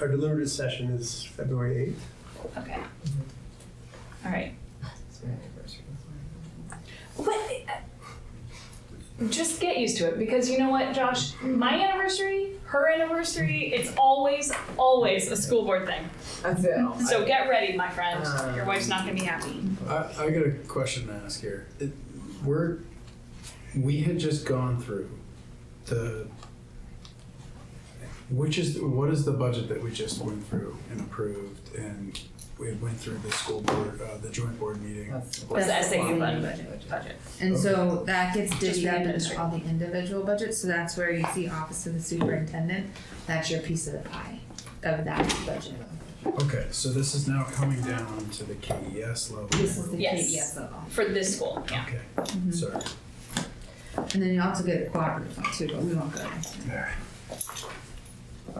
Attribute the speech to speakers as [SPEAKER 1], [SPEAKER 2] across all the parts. [SPEAKER 1] Our deliberative session is February 8th.
[SPEAKER 2] Okay. All right. But uh, just get used to it because you know what, Josh? My anniversary, her anniversary, it's always, always a school board thing.
[SPEAKER 3] I feel.
[SPEAKER 2] So get ready, my friend. Your wife's not going to be happy.
[SPEAKER 4] I, I got a question to ask here. It, we're we had just gone through the which is what is the budget that we just went through and approved and we went through the school board uh, the joint board meeting.
[SPEAKER 2] Was the SAU
[SPEAKER 3] fine.
[SPEAKER 2] budget? budget.
[SPEAKER 5] And so that gets
[SPEAKER 2] Just the
[SPEAKER 5] divvied into
[SPEAKER 2] administrative.
[SPEAKER 5] all the individual budgets, so that's where you see office of the superintendent, that's your piece of the pie of that budget.
[SPEAKER 4] Okay, so this is now coming down to the KES level.
[SPEAKER 5] This is the E
[SPEAKER 2] Yes.
[SPEAKER 5] KES level.
[SPEAKER 2] For this school, yeah.
[SPEAKER 4] Okay, sorry.
[SPEAKER 5] And then you also get the cooperative one too, but we won't go there.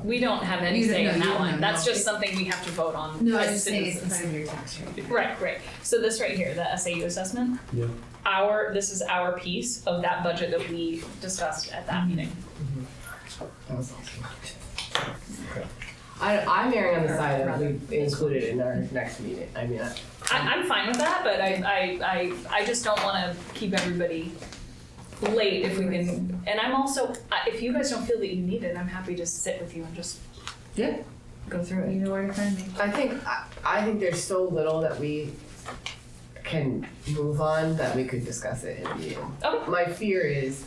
[SPEAKER 2] We don't have any
[SPEAKER 5] You don't-
[SPEAKER 2] say
[SPEAKER 5] no,
[SPEAKER 2] in
[SPEAKER 5] you
[SPEAKER 2] that
[SPEAKER 5] don't
[SPEAKER 2] one.
[SPEAKER 5] have
[SPEAKER 2] That's
[SPEAKER 5] no-
[SPEAKER 2] just something we have to vote on
[SPEAKER 5] No, I
[SPEAKER 2] as
[SPEAKER 5] was just saying it's in
[SPEAKER 2] citizens.
[SPEAKER 5] front of your tax rate.
[SPEAKER 2] Right, right. So this right here, the SAU assessment.
[SPEAKER 4] Yeah.
[SPEAKER 2] Our this is our piece of that budget that we discussed at that meeting.
[SPEAKER 3] I, I'm erring on the side of we include it in our next meeting. I mean, I-
[SPEAKER 2] I, I'm fine with that, but I, I, I, I just don't wanna keep everybody late if we can, and I'm also, I- if you guys don't feel that you need it, I'm happy to sit with you and just
[SPEAKER 5] Yeah.
[SPEAKER 2] go through
[SPEAKER 5] You
[SPEAKER 2] it.
[SPEAKER 5] know where to find me.
[SPEAKER 3] I think, I, I think there's so little that we can move on that we could discuss it in a meeting.
[SPEAKER 2] Okay.
[SPEAKER 3] My fear is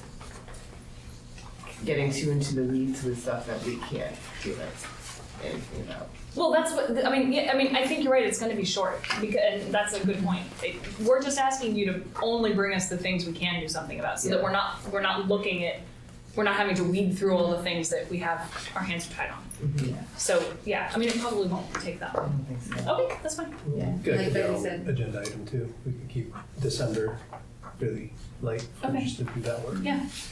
[SPEAKER 3] getting too into the weeds with stuff that we can't do it, anything about.
[SPEAKER 2] Well, that's what, I mean, yeah, I mean, I think you're right, it's gonna be short, because, and that's a good point. It- We're just asking you to only bring us the things we can do something about, so that
[SPEAKER 3] Yeah.
[SPEAKER 2] we're not, we're not looking at, we're not having to weed through all the things that we have our hands tied on.
[SPEAKER 3] Mhm.
[SPEAKER 2] So, yeah, I mean, it probably won't take that
[SPEAKER 3] I
[SPEAKER 2] long.
[SPEAKER 3] don't think so.
[SPEAKER 2] Okay, that's fine.
[SPEAKER 3] Yeah.
[SPEAKER 1] Good.
[SPEAKER 5] Like Becky said.
[SPEAKER 1] Agenda item two. We could keep December really light,
[SPEAKER 2] Okay.
[SPEAKER 1] just to do that work.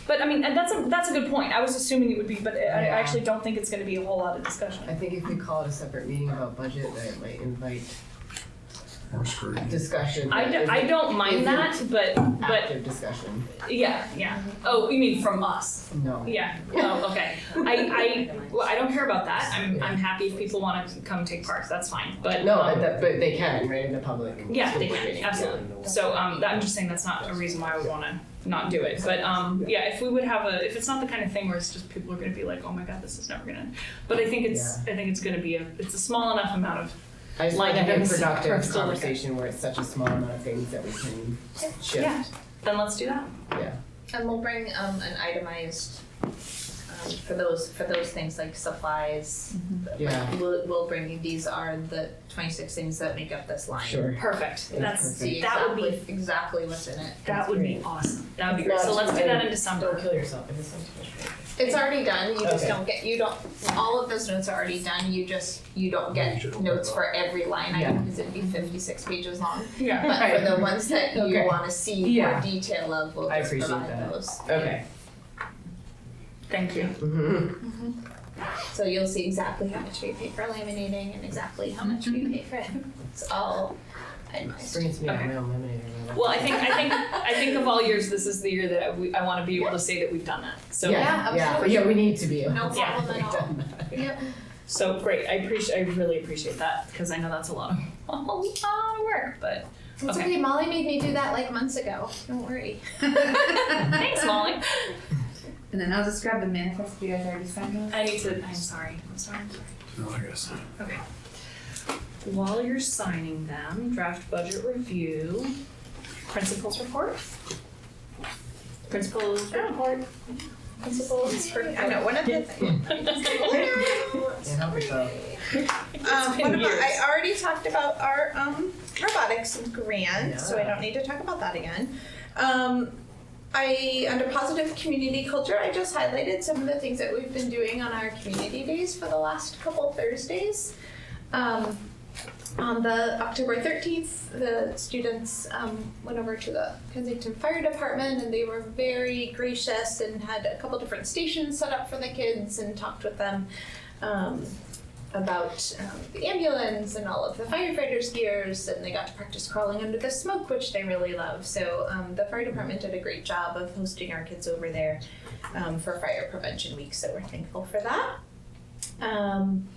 [SPEAKER 2] But I mean, and that's a that's a good point. I was assuming it would be, but I, I
[SPEAKER 3] Yeah.
[SPEAKER 2] actually don't think it's going to be a whole lot of discussion.
[SPEAKER 3] I think if we call it a separate meeting about budget, then it might invite
[SPEAKER 4] We're screwed.
[SPEAKER 3] discussion.
[SPEAKER 2] I,
[SPEAKER 3] that
[SPEAKER 2] do,
[SPEAKER 3] isn't
[SPEAKER 2] not mind that, but but
[SPEAKER 3] Active discussion,
[SPEAKER 2] yeah, yeah. Oh, you mean from us?
[SPEAKER 3] no.
[SPEAKER 2] Yeah. Oh, okay. I I well, I don't care about that. I'm I'm happy if people want to come take part. That's fine. But
[SPEAKER 3] No,
[SPEAKER 2] um,
[SPEAKER 3] but that, but they can, right, in the public.
[SPEAKER 2] yeah, they
[SPEAKER 3] school
[SPEAKER 2] can
[SPEAKER 3] meeting.
[SPEAKER 2] absolutely. So um, that, I'm just saying that's not a reason why I would want to not do it. But um, yeah, if we would have a, if it's not the kind of thing where it's just people are going to be like, oh my god, this is never going to. But I think it's I think it's going to be a it's a small enough amount of
[SPEAKER 3] I just
[SPEAKER 2] Line
[SPEAKER 3] like a
[SPEAKER 2] items for
[SPEAKER 3] productive
[SPEAKER 2] us to look at.
[SPEAKER 3] conversation where it's such a small amount of things that we can
[SPEAKER 2] Yeah.
[SPEAKER 3] shift.
[SPEAKER 2] then let's do that.
[SPEAKER 6] And we'll bring um an itemized um for those for those things like supplies.
[SPEAKER 3] Yeah,
[SPEAKER 6] We'll we'll bring you, these are the twenty six things that make up this line.
[SPEAKER 3] sure.
[SPEAKER 2] Perfect.
[SPEAKER 3] Yeah,
[SPEAKER 2] That's
[SPEAKER 3] perfect.
[SPEAKER 6] See
[SPEAKER 2] that would be
[SPEAKER 6] exactly exactly what's in it.
[SPEAKER 2] that would be awesome. That would be great.
[SPEAKER 3] It's
[SPEAKER 2] So
[SPEAKER 3] not
[SPEAKER 2] let's do
[SPEAKER 3] too
[SPEAKER 2] that in
[SPEAKER 3] bad. Don't
[SPEAKER 2] December.
[SPEAKER 3] kill yourself, it is so much work.
[SPEAKER 6] It's already done, you just
[SPEAKER 3] Okay.
[SPEAKER 6] don't get, you don't, all of those notes are already done, you just, you don't
[SPEAKER 1] You
[SPEAKER 6] get
[SPEAKER 1] should open
[SPEAKER 6] notes
[SPEAKER 1] it up.
[SPEAKER 6] for every line item,
[SPEAKER 3] Yeah.
[SPEAKER 6] because it'd be fifty-six pages long.
[SPEAKER 2] Yeah.
[SPEAKER 6] But for
[SPEAKER 3] Right.
[SPEAKER 6] the ones that you
[SPEAKER 3] Okay.
[SPEAKER 6] wanna see more
[SPEAKER 3] Yeah.
[SPEAKER 6] detail of, we'll
[SPEAKER 3] I
[SPEAKER 6] just
[SPEAKER 3] appreciate
[SPEAKER 6] provide
[SPEAKER 3] that.
[SPEAKER 6] those.
[SPEAKER 3] Okay.
[SPEAKER 2] Thank you.
[SPEAKER 3] Mhm.
[SPEAKER 6] So you'll see exactly how much we pay for laminating and exactly how much we pay for it, it's all itemized.
[SPEAKER 3] Brings me
[SPEAKER 2] Okay.
[SPEAKER 3] my own lemonade. I love it.
[SPEAKER 2] Well, I think I think I think of all years, this is the year that I, we, I want to be able to say that we've done that. So
[SPEAKER 3] Yeah,
[SPEAKER 6] Yeah,
[SPEAKER 3] yeah,
[SPEAKER 6] absolutely.
[SPEAKER 3] yeah, we need to be. able
[SPEAKER 6] No
[SPEAKER 3] to-
[SPEAKER 6] problem at all. Yep.
[SPEAKER 2] so great. I appreciate. I really appreciate that because I know that's a lot of a lot of work. But
[SPEAKER 6] It's
[SPEAKER 2] Okay.
[SPEAKER 6] okay, Molly made me do that like months ago, don't worry.
[SPEAKER 2] thanks, Molly.
[SPEAKER 5] And then I'll just grab the manifest, you guys already signed those?
[SPEAKER 2] I need to. I'm sorry. I'm sorry. I'm sorry.
[SPEAKER 4] No, I guess. not.
[SPEAKER 2] While you're signing them, draft budget review, principals report. Principals report. Principals report.
[SPEAKER 7] I know, one of the things.
[SPEAKER 3] Yeah, help yourself.
[SPEAKER 7] Um,
[SPEAKER 2] been
[SPEAKER 7] what about,
[SPEAKER 2] years.
[SPEAKER 7] I already talked about our um, robotics grant, so I
[SPEAKER 3] Yeah.
[SPEAKER 7] don't need to talk about that again. Um, I, under positive community culture, I just highlighted some of the things that we've been doing on our community days for the last couple Thursdays. Um, on the October 13th, the students um, went over to the Kensington Fire Department and they were very gracious and had a couple different stations set up for the kids and talked with them um, about um, the ambulance and all of the firefighters' gears, and they got to practice crawling under the smoke, which they really love. So um, the fire department did a great job of hosting our kids over there um, for Fire Prevention Week, so we're thankful for that. Um,